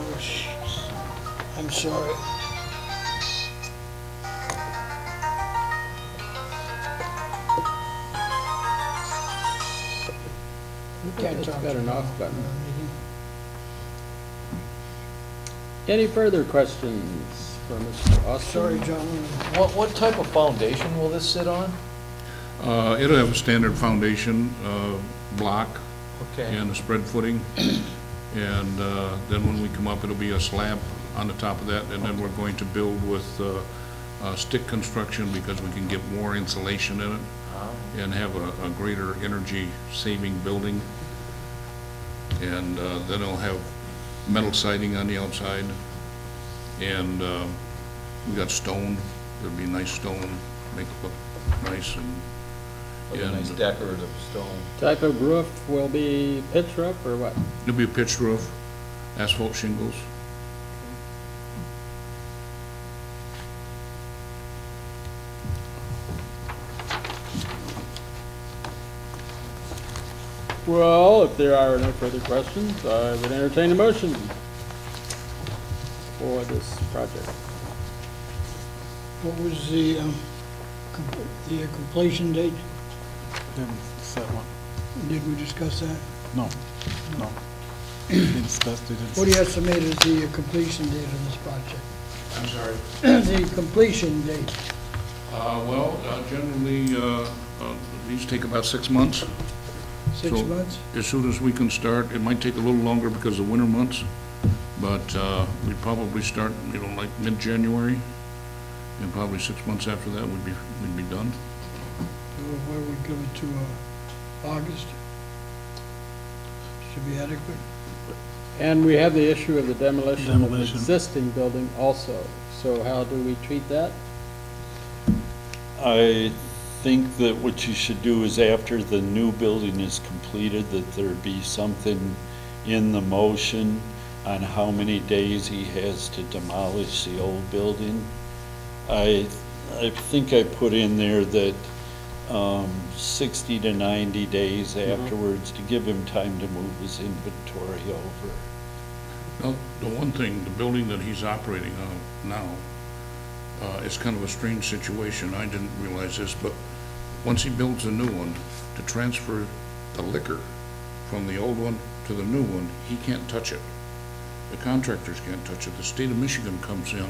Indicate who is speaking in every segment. Speaker 1: Oh, I'm sorry. You can't
Speaker 2: It's
Speaker 1: talk.
Speaker 2: got an off button. Any further questions for Mr.
Speaker 1: Sorry,
Speaker 2: Austin?
Speaker 1: John.
Speaker 3: What, what type of foundation will this sit on?
Speaker 4: Uh, It'll have a standard foundation, uh, block
Speaker 3: Okay,
Speaker 4: and a spread footing. And uh, then when we come up, it'll be a slab on the top of that, and then we're going to build with uh, uh, stick construction because we can get more insulation in it and have a a greater energy-saving building. And uh, then it'll have metal siding on the outside. And uh, we got stone, there'll be nice stone, make it look nice and
Speaker 3: with a nice
Speaker 4: and-
Speaker 3: decorative stone.
Speaker 2: Type of roof will be pitch roof or what?
Speaker 4: It'll be a pitched roof, asphalt shingles.
Speaker 2: Well, if there are no further questions, I would entertain a motion for this project.
Speaker 1: What was the, um, com- the uh, completion date?
Speaker 5: Didn't set one,
Speaker 1: Did we discuss that?
Speaker 5: no, no. Didn't spec, they didn't.
Speaker 1: What do you estimate is the uh, completion date of this project?
Speaker 4: I'm sorry.
Speaker 1: The completion date,
Speaker 4: Well, uh, generally, uh, uh, these take about six months.
Speaker 1: six
Speaker 4: So-
Speaker 1: months?
Speaker 4: As soon as we can start, it might take a little longer because of winter months, but uh, we'd probably start, you know, like mid-January, and probably six months after that, we'd be, we'd be done.
Speaker 1: Or where we give it to, uh, August? Should be adequate.
Speaker 2: And we have the issue of the demolition of an
Speaker 5: Demolition.
Speaker 2: existing building also. So how do we treat that?
Speaker 6: I think that what you should do is after the new building is completed, that there be something in the motion on how many days he has to demolish the old building. I, I think I put in there that, um, sixty to ninety days afterwards to give him time to move his inventory over.
Speaker 4: Now, the one thing, the building that he's operating on now, uh, it's kind of a strange situation. I didn't realize this, but once he builds a new one, to transfer the liquor from the old one to the new one, he can't touch it. The contractors can't touch it. The state of Michigan comes in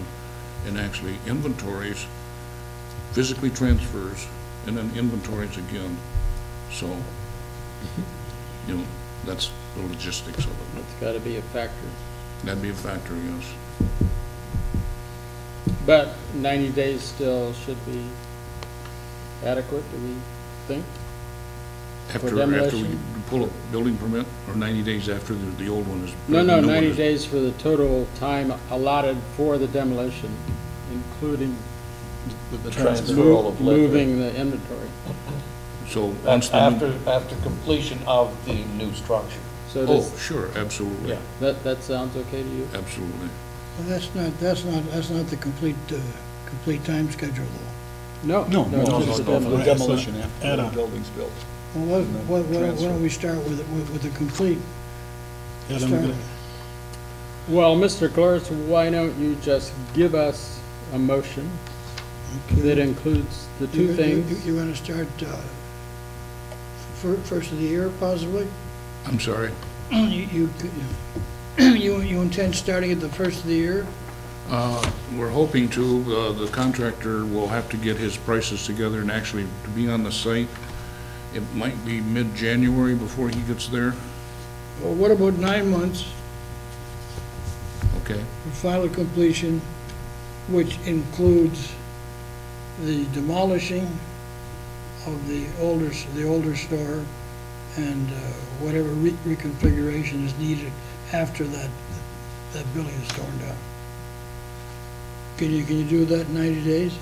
Speaker 4: and actually inventories, physically transfers, and then inventories again. So, you know, that's the logistics of it.
Speaker 2: That's got to be a factor.
Speaker 4: That'd be a factor, yes.
Speaker 2: But 90 days still should be adequate, do we think?
Speaker 4: After, after we
Speaker 2: demolition?
Speaker 4: pull a building permit, or 90 days after the, the old one is.
Speaker 2: No,
Speaker 4: the
Speaker 2: no,
Speaker 4: new one
Speaker 2: 90
Speaker 4: is-
Speaker 2: days for the total time allotted for the demolition, including
Speaker 6: With the
Speaker 3: transferal of liquor.
Speaker 2: moving the inventory.
Speaker 4: So,
Speaker 3: That's
Speaker 4: once the,
Speaker 3: after,
Speaker 4: new-
Speaker 3: after completion of the new structure.
Speaker 2: So
Speaker 4: oh,
Speaker 2: does,
Speaker 4: sure, absolutely,
Speaker 3: Yeah.
Speaker 2: that, that sounds okay to you?
Speaker 4: absolutely.
Speaker 1: Well, that's not, that's not, that's not the complete, uh, complete time schedule though.
Speaker 2: No.
Speaker 5: No, no,
Speaker 2: just
Speaker 5: no,
Speaker 2: the
Speaker 5: no, no.
Speaker 2: demolition.
Speaker 5: demolition after the
Speaker 6: building's built.
Speaker 1: Well, why, why why don't we start with, with with the complete?
Speaker 5: Yeah, then we
Speaker 1: start
Speaker 5: got-
Speaker 1: with?
Speaker 2: Well, Mr. Cloris, why don't you just give us a motion that includes the
Speaker 1: You-
Speaker 2: two
Speaker 1: you-
Speaker 2: things?
Speaker 1: You want to start uh, fir- first of the year possibly?
Speaker 4: I'm sorry.
Speaker 1: You, you c- you, you intend starting at the first of the year?
Speaker 4: Uh, We're hoping to, uh, the contractor will have to get his prices together and actually to be on the site. It might be mid-January before he gets there,
Speaker 1: Well, what about nine months
Speaker 4: okay?
Speaker 1: for final completion, which includes the demolishing of the older, s- the older store and uh, whatever re- reconfiguration is needed after that, that building is torn down? Can you, can you do that in 90 days?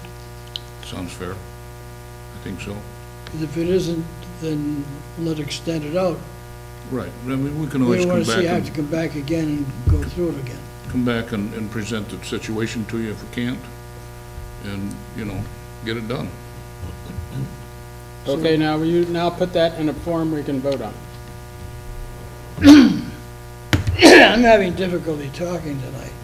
Speaker 4: Sounds fair. I think so.
Speaker 1: Because if it isn't, then let extend it out.
Speaker 4: Right, I mean, we can
Speaker 1: We
Speaker 4: always
Speaker 1: don't
Speaker 4: come
Speaker 1: want
Speaker 4: back
Speaker 1: to see, have
Speaker 4: and-
Speaker 1: to come back again and go through it again.
Speaker 4: come back and, and present the situation to you if we can't, and, you know, get it done.
Speaker 2: Okay, now, will you now put that in a form we can vote on?
Speaker 1: I'm having difficulty talking tonight.